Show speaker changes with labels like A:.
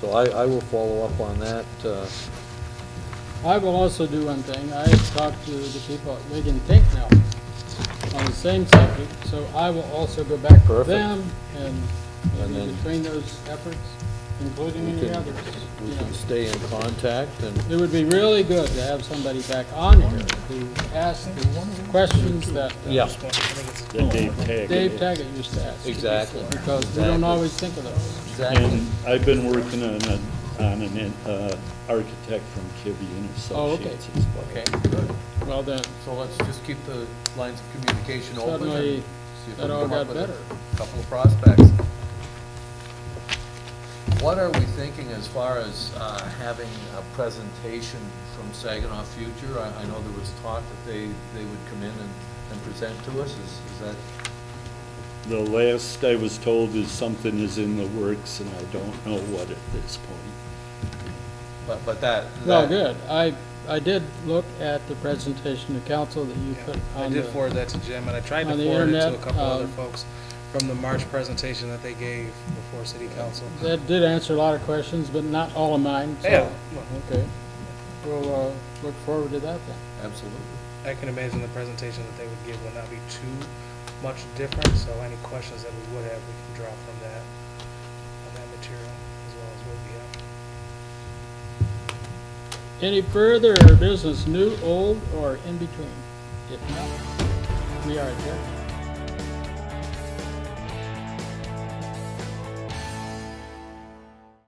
A: So I, I will follow up on that. uh,
B: I will also do one thing, I have talked to the people at Wigan Think now on the same subject, so I will also go back to
A: Perfect.
B: them and
A: And
B: maybe
A: then-
B: between those efforts, including
A: We
B: any
A: can-
B: others,
A: We
B: you know.
A: can stay in contact and, uh,
B: It would be really good to have somebody back on here to ask the questions that uh,
A: yeah,
C: that Dave Taggett.
B: Dave Taggett used to ask.
A: Exactly.
B: Because we don't always think of those.
A: exactly.
C: And I've been working on a, on an, in- uh, architect from Kibbe and
B: Oh, okay.
C: Associates as well.
D: Okay, good.
B: Well, then,
D: So let's just keep the lines of communication open. and
B: suddenly,
D: see if we
B: that
D: can
B: all
D: come up
B: got
D: with a
B: better.
D: Couple of prospects. What are we thinking as far as uh, having a presentation from Saginaw Future? I, I know there was talk that they, they would come in and, and present to us. Is, is that,
C: The last I was told is something is in the works and I don't know what at this point.
D: but, but that.
B: Well,
D: that-
B: good. I, I did look at the presentation to council that you put
E: I
B: on
E: did
B: the,
E: forward that to Jim, and I tried to
B: on the
E: forward it to a
B: internet,
E: couple other
B: um,
E: folks from the March presentation that they gave before city council.
B: that did answer a lot of questions, but not all of mine, so.
E: Yeah,
B: Okay. We'll, uh, look forward to that then.
D: Absolutely.
E: I can imagine the presentation that they would give would not be too much different, so any questions that we would have, we can draw from that, on that material, as well as what we have.
B: Any further business, new, old, or in between? If not, we are adjourned.